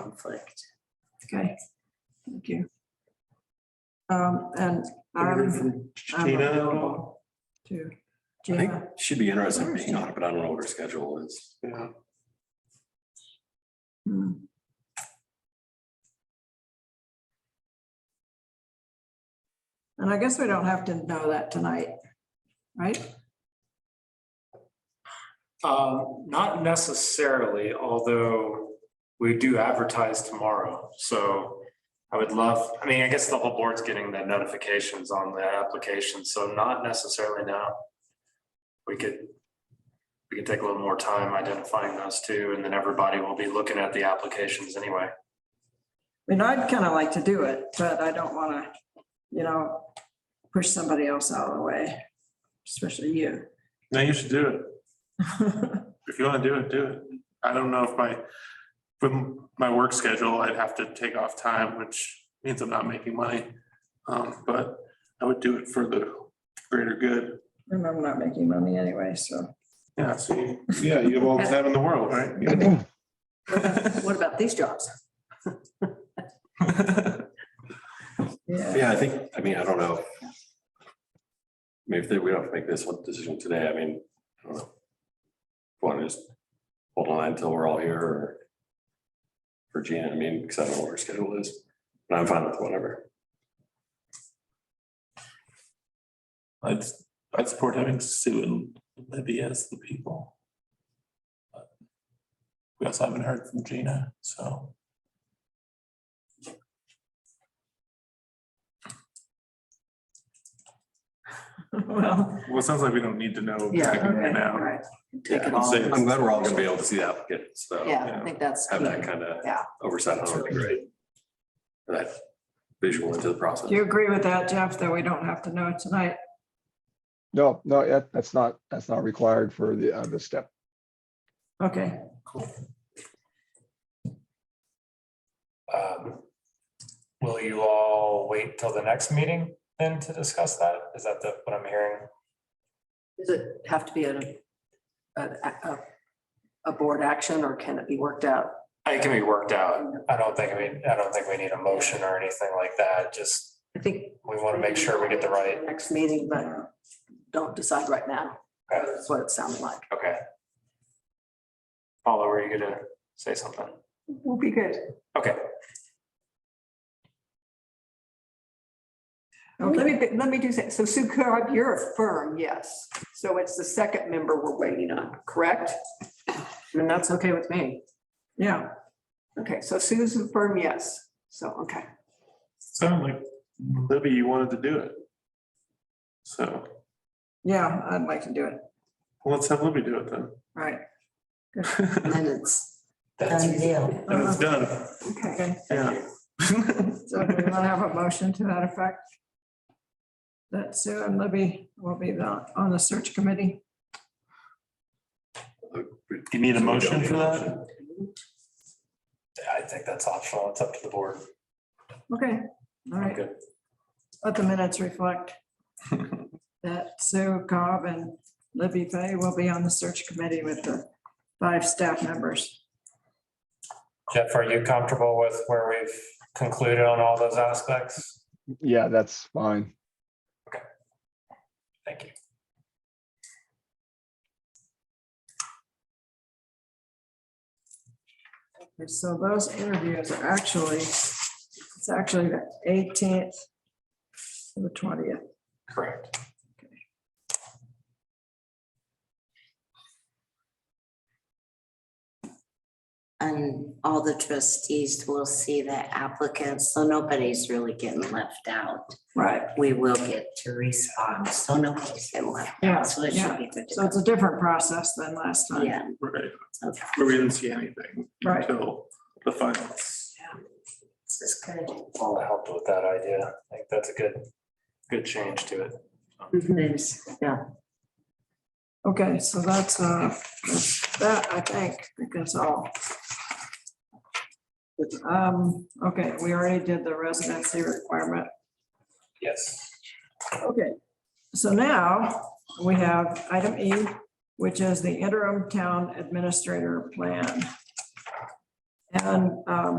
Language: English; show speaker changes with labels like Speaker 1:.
Speaker 1: conflict.
Speaker 2: Okay, thank you. Um, and
Speaker 3: Heard
Speaker 2: I'm
Speaker 3: from
Speaker 2: I'm
Speaker 3: Tina at all?
Speaker 2: available to,
Speaker 4: I think
Speaker 2: Gina,
Speaker 4: she'd be interested in being on it, but I don't know what her schedule is.
Speaker 3: Yeah.
Speaker 2: hmm, and I guess we don't have to know that tonight, right?
Speaker 3: Um, not necessarily, although we do advertise tomorrow, so I would love, I mean, I guess the whole board's getting the notifications on the application, so not necessarily now. We could, we could take a little more time identifying those two, and then everybody will be looking at the applications anyway.
Speaker 2: I mean, I'd kind of like to do it, but I don't want to, you know, push somebody else out of the way, especially you.
Speaker 5: No, you should do it. If you want to do it, do it. I don't know if my, from my work schedule, I'd have to take off time, which means I'm not making money. Um, but I would do it for the greater good.
Speaker 2: And I'm not making money anyway, so.
Speaker 5: Yeah, so, you- yeah, you have all the time in the world, right?
Speaker 2: What about these jobs? Yeah,
Speaker 4: Yeah, I think, I mean, I don't know. I mean, if they- we don't have to make this one decision today, I mean, I don't know. Want to just hold on until we're all here or for Gina, I mean, because I don't know what her schedule is, but I'm fine with whatever.
Speaker 5: I'd, I'd support having Sue and Libby as the people. But We also haven't heard from Gina, so.
Speaker 2: well,
Speaker 5: Well, it sounds like we don't need to know
Speaker 1: Yeah,
Speaker 5: exactly
Speaker 2: okay,
Speaker 5: right
Speaker 2: all
Speaker 5: now.
Speaker 2: right.
Speaker 1: Take it
Speaker 4: Yeah, I'm
Speaker 1: all.
Speaker 4: saying- I'm glad we're all gonna be able to see the applicant, so.
Speaker 1: Yeah, I think that's.
Speaker 4: Have that
Speaker 1: key.
Speaker 4: kind of
Speaker 1: Yeah.
Speaker 4: oversight on it would be great. That visual into the process.
Speaker 2: Do you agree with that, Jeff, that we don't have to know tonight?
Speaker 6: No, no, yeah, that's not, that's not required for the, uh, the step.
Speaker 2: Okay,
Speaker 3: Um, Will you all wait till the next meeting then to discuss that? Is that the, what I'm hearing?
Speaker 1: Does it have to be a, a, a, a board action or can it be worked out?
Speaker 3: It can be worked out. I don't think, I mean, I don't think we need a motion or anything like that. Just,
Speaker 1: I think.
Speaker 3: we want to make sure we get the right,
Speaker 1: Next meeting, but don't decide right now.
Speaker 3: Okay.
Speaker 1: That's what it sounded like.
Speaker 3: okay. Paula, were you gonna say something?
Speaker 1: Will be good.
Speaker 3: Okay,
Speaker 7: Well, Let
Speaker 2: okay,
Speaker 7: me, let me do that. So Sue Carp, you're a firm, yes. So it's the second member we're waiting on, correct?
Speaker 1: And that's okay with me.
Speaker 2: yeah,
Speaker 7: Okay, so Sue's a firm, yes. So, okay.
Speaker 5: Sounded like Libby, you wanted to do it. So
Speaker 2: yeah, I'd like to do it,
Speaker 5: well, let's have Libby do it then.
Speaker 2: right,
Speaker 1: And then it's.
Speaker 3: that's,
Speaker 1: deal.
Speaker 5: And it's done,
Speaker 2: okay.
Speaker 5: yeah.
Speaker 2: So do we want to have a motion to that effect? That Sue and Libby will be the- on the search committee.
Speaker 5: You need a motion for that?
Speaker 3: I think that's optional. It's up to the board.
Speaker 2: Okay, all
Speaker 3: I'm
Speaker 2: right,
Speaker 3: good.
Speaker 2: let the minutes reflect that Sue Cobb and Libby Fay will be on the search committee with the five staff members.
Speaker 3: Jeff, are you comfortable with where we've concluded on all those aspects?
Speaker 6: Yeah, that's fine.
Speaker 3: Thank you.
Speaker 2: And so those interviews are actually, it's actually the eighteenth to the twentieth.
Speaker 3: Correct.
Speaker 8: And all the trustees will see the applicants, so nobody's really getting left out.
Speaker 2: Right.
Speaker 8: We will get to respond, so nobody's getting left
Speaker 2: Yeah,
Speaker 8: out, so it
Speaker 2: yeah.
Speaker 8: should be good.
Speaker 2: So it's a different process than last time.
Speaker 8: Yeah,
Speaker 5: Right,
Speaker 8: okay,
Speaker 5: where we didn't see anything
Speaker 2: Right.
Speaker 5: until the finals.
Speaker 8: this is good.
Speaker 3: Paula helped with that idea. I think that's a good, good change to it.
Speaker 2: Okay, so that's, uh, that's that, I think, I think that's all. Um, okay, we already did the residency requirement.
Speaker 3: Yes.
Speaker 2: Okay. So now we have item E, which is the interim town administrator plan. And, um,